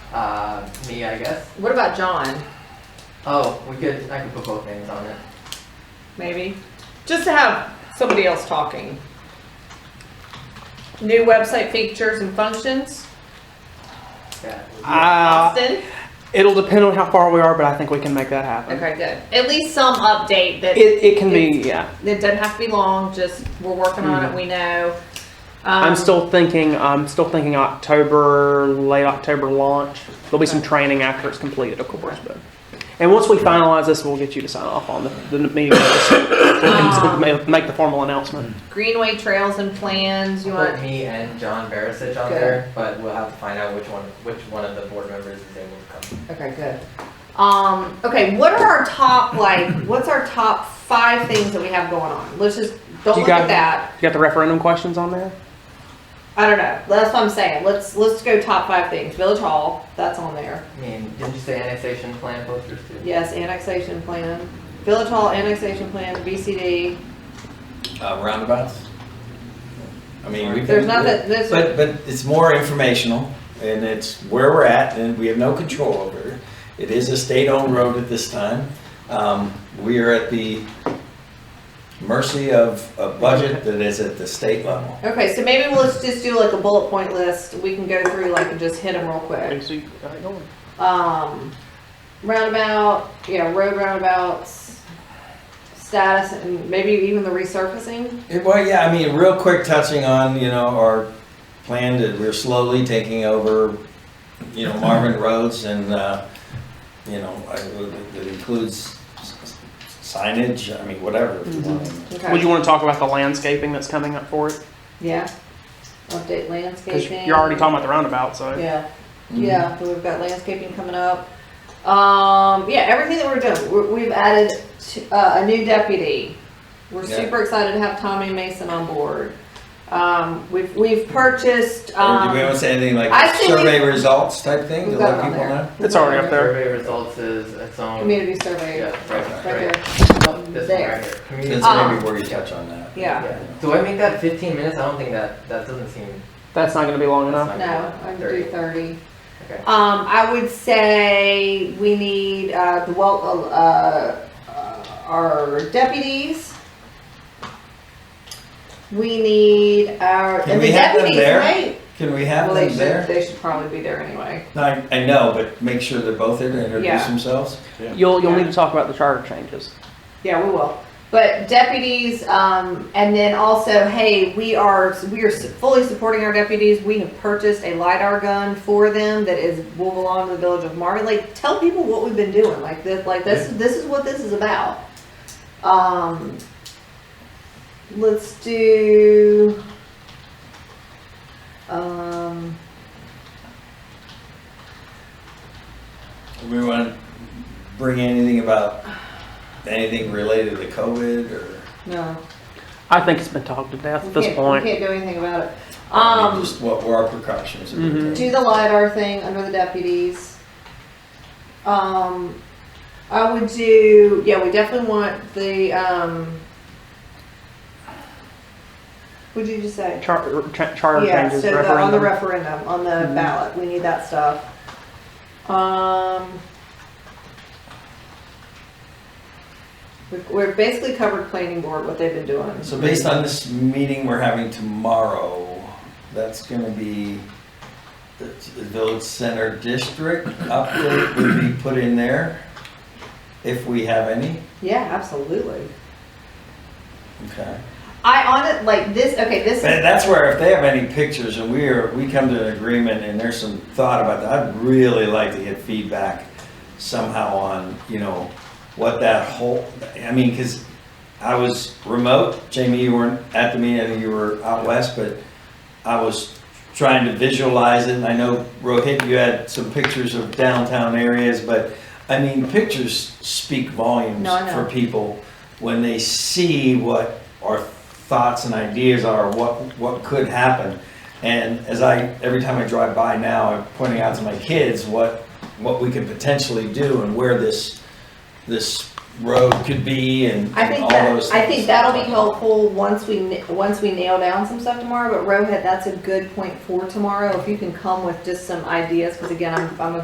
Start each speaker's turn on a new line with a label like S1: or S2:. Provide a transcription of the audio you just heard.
S1: uh, me, I guess.
S2: What about John?
S1: Oh, we could, I could put both names on it.
S2: Maybe just to have somebody else talking. New website features and functions.
S1: Yeah.
S3: Uh,
S2: Austin.
S3: it'll depend on how far we are, but I think we can make that happen.
S2: Okay, good. At least some update that
S3: uh, It, it can be, yeah.
S2: It doesn't have to be long, just we're working on it, we know.
S3: Hmm.
S2: Um,
S3: I'm still thinking, I'm still thinking October, late October launch. There'll be some training after it's completed, of course, but. And once we finalize this, we'll get you to sign off on the, the meeting. notice. We can ma- Make the formal announcement.
S2: Greenway trails and plans, you
S1: Put
S2: want,
S1: me and John Barisic on
S2: Good.
S1: there, but we'll have to find out which one, which one of the board members is able to come.
S2: okay, good. Um, okay, what are our top, like, what's our top five things that we have going on? Let's just, don't
S3: You
S2: look at
S3: got-
S2: that,
S3: You got the referendum questions on there?
S2: I don't know, that's what I'm saying, let's, let's go top five things, Village Hall, that's on there.
S1: I mean, didn't you say annexation plan posters too?
S2: Yes, annexation plan, Village Hall annexation plan, VCD,
S4: Uh, roundabouts? I mean, we.
S2: there's nothing, this,
S4: But, but it's more informational and it's where we're at and we have no control over it. It is a state-owned road at this time. Um, we are at the mercy of a budget that is at the state level.
S2: okay, so maybe we'll just do like a bullet point list, we can go through like and just hit them real quick.
S3: Okay, so you- all right, go on.
S2: um, roundabout, yeah, road roundabouts, status, and maybe even the resurfacing.
S4: Yeah, Well, yeah, I mean, real quick touching on, you know, our plan that we're slowly taking over, you know, Marvin Roads and, uh, you know, I- it includes signage, I mean, whatever. if you want.
S2: Okay.
S3: Would you want to talk about the landscaping that's coming up for it?
S2: yeah. Update
S3: Because
S2: landscaping.
S3: you're already talking about the roundabout, so.
S2: Yeah, yeah. so We've got landscaping coming up. Um, yeah, everything that we're doing, we're, we've added t- uh, a new deputy. We're
S4: Yeah.
S2: super excited to have Tommy Mason on board. Um, we've we've purchased.
S4: Or Oh, do
S2: Um,
S4: we want to say anything
S2: I
S4: like
S2: think
S4: survey results type thing to
S2: we've got
S4: let
S2: it on
S4: people
S2: there.
S4: know?
S3: It's already up there.
S1: Survey results is its own.
S2: Community survey.
S1: Yeah,
S2: Right
S1: right,
S2: there.
S1: right. Oh, This one
S2: There.
S1: right here. Ah. Community.
S4: That's
S2: Um,
S4: maybe where you touch on that.
S2: Yeah.
S1: Yeah. Do I make that fifteen minutes? I don't think that, that doesn't seem.
S3: That's not going to be long
S1: that's not
S3: enough.
S2: No,
S1: good.
S2: I would
S1: Thirty.
S2: do thirty.
S1: Okay.
S2: Um, I would say we need, uh, the well, uh, uh, our deputies. We need our,
S4: Can
S2: and
S4: we
S2: the
S4: have them
S2: deputies,
S4: there?
S2: right?
S4: Can we
S2: Well,
S4: have
S2: they
S4: them
S2: should,
S4: there?
S2: they should probably be there anyway.
S4: No, I I know, but make sure they're both there to
S2: Yeah.
S4: introduce themselves.
S3: You'll, you'll
S2: Yeah.
S3: need to talk about the charter changes.
S2: Yeah, we will. But deputies, um, and then also, hey, we are, we are fully supporting our deputies. We have purchased a LiDAR gun for them that is, will belong to the village of Marvin. Like, tell people what we've been doing, like this, like this, this is what this is about. Um, let's do, um,
S4: We want to bring anything about, anything related to COVID or?
S2: no.
S3: I think it's been talked to death
S2: we
S3: at this
S2: can't-
S3: point.
S2: We can't do anything about it.
S4: I mean,
S2: Um,
S4: Just what were our precautions?
S3: Mhm.
S2: do the LiDAR thing under the deputies. Um, I would do, yeah, we definitely want the, um, what'd you just say?
S3: Char- cha- charter
S2: Yeah,
S3: changes,
S2: so the, on the
S3: referendum.
S2: referendum, on the ballot, we need that stuff. Um, we've, we've basically covered planning board, what they've been doing.
S4: So based on this meeting we're having tomorrow, that's gonna be the the village center district update would be put in there, if we have any,
S2: Yeah, absolutely.
S4: okay?
S2: I on it, like this, okay, this is.
S4: And that's where if they have any pictures and we are, we come to an agreement and there's some thought about that, I'd really like to get feedback somehow on, you know, what that whole, I mean, cause I was remote, Jamie, you weren't at the meeting, I think you were out west, but I was trying to visualize it and I know Rohit, you had some pictures of downtown areas, but I mean, pictures speak volumes
S2: No, I know.
S4: for people when they see what our thoughts and ideas are, what, what could happen. And as I, every time I drive by now, I'm pointing out to my kids what, what we could potentially do and where this, this road could be and
S2: I
S4: and
S2: think
S4: all
S2: that,
S4: those
S2: I
S4: things.
S2: think that'll be helpful once we, na- once we nail down some stuff tomorrow, but Rohit, that's a good point for tomorrow, if you can come with just some ideas, because again, I'm, I'm a